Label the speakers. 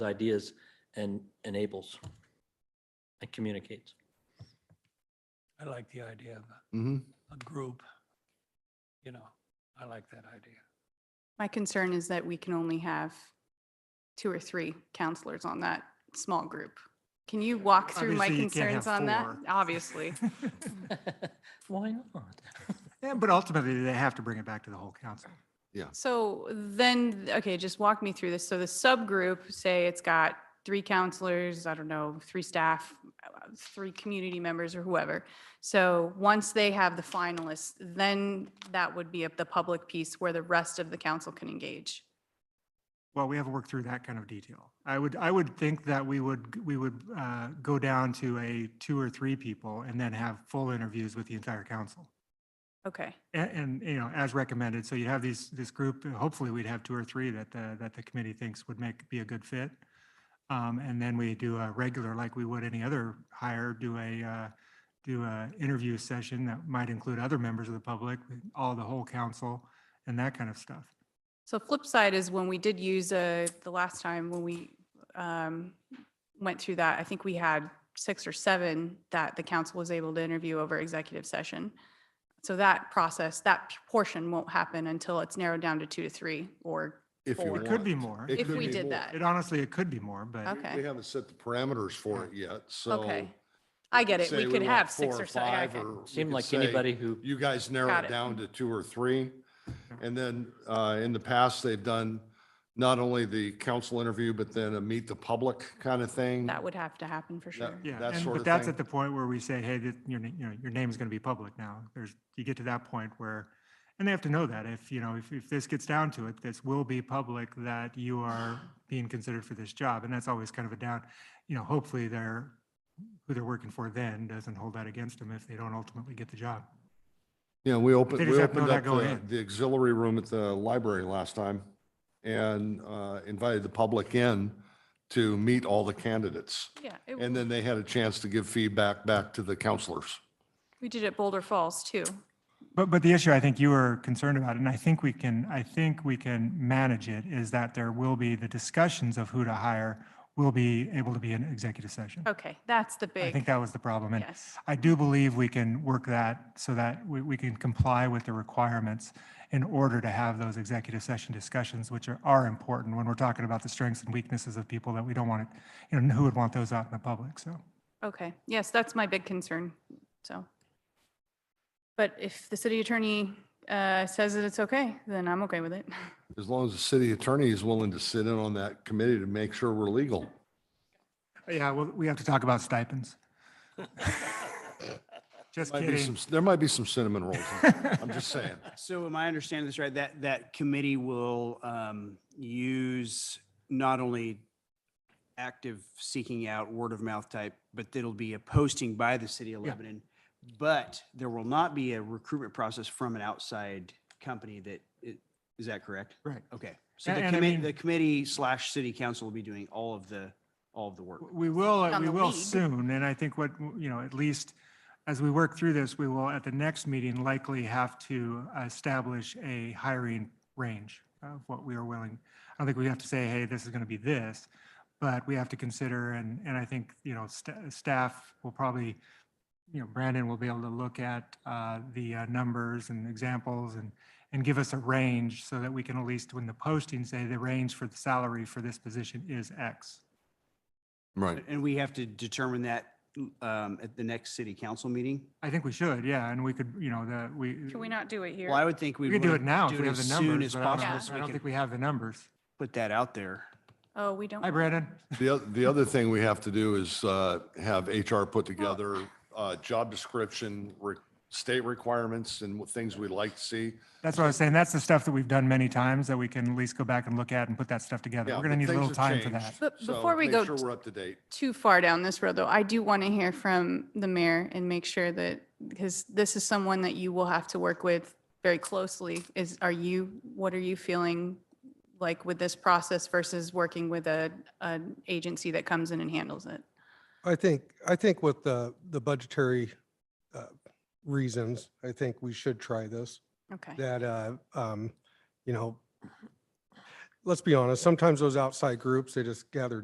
Speaker 1: ideas and enables and communicates.
Speaker 2: I like the idea of a-
Speaker 3: Mm-hmm.
Speaker 2: a group. You know, I like that idea.
Speaker 4: My concern is that we can only have two or three counselors on that small group. Can you walk through my
Speaker 5: Obviously, you can't
Speaker 4: concerns
Speaker 5: have
Speaker 4: on that?
Speaker 5: four.
Speaker 4: Obviously.
Speaker 1: Why not?
Speaker 5: Yeah, but ultimately, they have to bring it back to the whole council.
Speaker 4: So then, okay, just walk me through this. So the subgroup, say it's got three counselors, I don't know, three staff, uh, three community members or whoever. So once they have the finalists, then that would be up the public piece where the rest of the council can engage.
Speaker 5: Well, we haven't worked through that kind of detail. I would, I would think that we would, we would uh, go down to a two or three people and then have full interviews with the entire council.
Speaker 4: Okay,
Speaker 5: A- And, you know, as recommended, so you have these, this group, uh, hopefully we'd have two or three that the, that the committee thinks would make, be a good fit. Um, and then we do a regular, like we would any other hire, do a, uh, do a interview session that might include other members of the public, all the whole council and that kind of stuff.
Speaker 4: So flip side is when we did use, uh, the last time when we, um, went through that, I think we had six or seven that the council was able to interview over executive session. So that process, that p- portion won't happen until it's narrowed down to two to three or,
Speaker 3: If you
Speaker 4: Or-
Speaker 3: want.
Speaker 5: It could be more.
Speaker 3: It
Speaker 4: if
Speaker 3: could
Speaker 4: we
Speaker 3: be
Speaker 4: did
Speaker 3: more.
Speaker 4: that.
Speaker 5: It honestly, it could be more, but
Speaker 4: Okay.
Speaker 3: We haven't set the parameters for it yet, so.
Speaker 4: Okay. I get it.
Speaker 3: say
Speaker 4: We could
Speaker 3: want
Speaker 4: have
Speaker 3: four
Speaker 4: six or seven. Yeah,
Speaker 3: five,
Speaker 4: okay.
Speaker 3: or we
Speaker 1: Seemed
Speaker 3: could
Speaker 1: like
Speaker 3: say,
Speaker 1: anybody who,
Speaker 3: You guys narrow
Speaker 4: Got
Speaker 3: it
Speaker 4: it.
Speaker 3: down to two or three. And then uh, in the past, they've done not only the council interview, but then a meet the public kind of thing.
Speaker 4: That would have to happen for sure.
Speaker 5: yeah.
Speaker 3: That
Speaker 5: and-
Speaker 3: sort
Speaker 5: But
Speaker 3: of
Speaker 5: that's
Speaker 3: thing.
Speaker 5: at the point where we say, hey, that, your, na- you know, your name is going to be public now. There's, you get to that point where, and they have to know that if, you know, if, if this gets down to it, this will be public that you are being considered for this job. And that's always kind of a down, you know, hopefully they're, who they're working for then doesn't hold that against them if they don't ultimately get the job.
Speaker 3: Yeah, we opened,
Speaker 5: They
Speaker 3: we
Speaker 5: just have to
Speaker 3: opened
Speaker 5: know
Speaker 3: up
Speaker 5: that going
Speaker 3: the
Speaker 5: in.
Speaker 3: the auxiliary room at the library last time and uh, invited the public in to meet all the candidates.
Speaker 4: Yeah. it-
Speaker 3: And then they had a chance to give feedback back to the counselors.
Speaker 4: We did it Boulder Falls too.
Speaker 5: But, but the issue I think you were concerned about, and I think we can, I think we can manage it, is that there will be, the discussions of who to hire will be able to be an executive session.
Speaker 4: Okay, that's the
Speaker 5: I think
Speaker 4: big,
Speaker 5: that was the problem. And
Speaker 4: yes.
Speaker 5: I do believe we can work that so that we, we can comply with the requirements in order to have those executive session discussions, which are, are important when we're talking about the strengths and weaknesses of people that we don't want to, you know, who would want those out in the public, so.
Speaker 4: Okay, yes, that's my big concern, so. But if the city attorney uh, says that it's okay, then I'm okay with it.
Speaker 3: As long as the city attorney is willing to sit in on that committee to make sure we're legal.
Speaker 5: Yeah, well, we have to talk about stipends. Just
Speaker 3: Might be
Speaker 5: kidding.
Speaker 3: some, there might be some cinnamon rolls. in there. I'm just saying.
Speaker 6: So am I understanding this right, that, that committee will um, use not only active seeking out word of mouth type, but it'll be a posting by the city of
Speaker 5: Yeah.
Speaker 6: Lebanon. But there will not be a recruitment process from an outside company that, it- is that correct?
Speaker 5: Right.
Speaker 6: Okay. So
Speaker 5: A-
Speaker 6: the
Speaker 5: and I
Speaker 6: committee,
Speaker 5: mean-
Speaker 6: the committee slash city council will be doing all of the, all of the work.
Speaker 5: We will, uh,
Speaker 4: on
Speaker 5: we
Speaker 4: the
Speaker 5: will
Speaker 4: lead.
Speaker 5: soon, and I think what, you know, at least as we work through this, we will, at the next meeting, likely have to establish a hiring range of what we are willing. I don't think we have to say, hey, this is going to be this, but we have to consider, and, and I think, you know, sta- staff will probably, you know, Brandon will be able to look at uh, the uh, numbers and examples and, and give us a range so that we can at least, when the posting, say the range for the salary for this position is X.
Speaker 3: Right.
Speaker 6: And we have to determine that um, at the next city council meeting?
Speaker 5: I think we should, yeah, and we could, you know, that we.
Speaker 4: Can we not do it here?
Speaker 6: Well, I would think we.
Speaker 5: We could do
Speaker 6: wanna
Speaker 5: it now if we have the
Speaker 6: as soon
Speaker 5: numbers,
Speaker 6: as
Speaker 5: but I
Speaker 6: possible.
Speaker 4: Yeah.
Speaker 5: don't,
Speaker 6: so
Speaker 5: I
Speaker 6: we
Speaker 5: don't
Speaker 6: can
Speaker 5: think we have the numbers.
Speaker 6: Put that out there.
Speaker 4: Oh, we don't.
Speaker 5: Hi, Brandon.
Speaker 3: The, oth- the other thing we have to do is uh, have HR put together uh, job description, re- state requirements and what things we'd like to see.
Speaker 5: That's what I was saying. That's the stuff that we've done many times that we can at least go back and look at and put that stuff together.
Speaker 3: Yeah,
Speaker 5: We're gonna
Speaker 3: but
Speaker 5: need a
Speaker 3: things
Speaker 5: little
Speaker 3: have
Speaker 5: time for
Speaker 3: changed,
Speaker 5: that.
Speaker 4: But
Speaker 3: so
Speaker 4: before we
Speaker 3: make
Speaker 4: go
Speaker 3: Sure
Speaker 4: t-
Speaker 3: we're up to date.
Speaker 4: too far down this road, though. I do want to hear from the mayor and make sure that, because this is someone that you will have to work with very closely, is, are you, what are you feeling like with this process versus working with a, an agency that comes in and handles it?
Speaker 7: I think, I think with the, the budgetary uh, reasons, I think we should try this,
Speaker 4: Okay.
Speaker 7: that, uh, um, you know, let's be honest, sometimes those outside groups, they just gather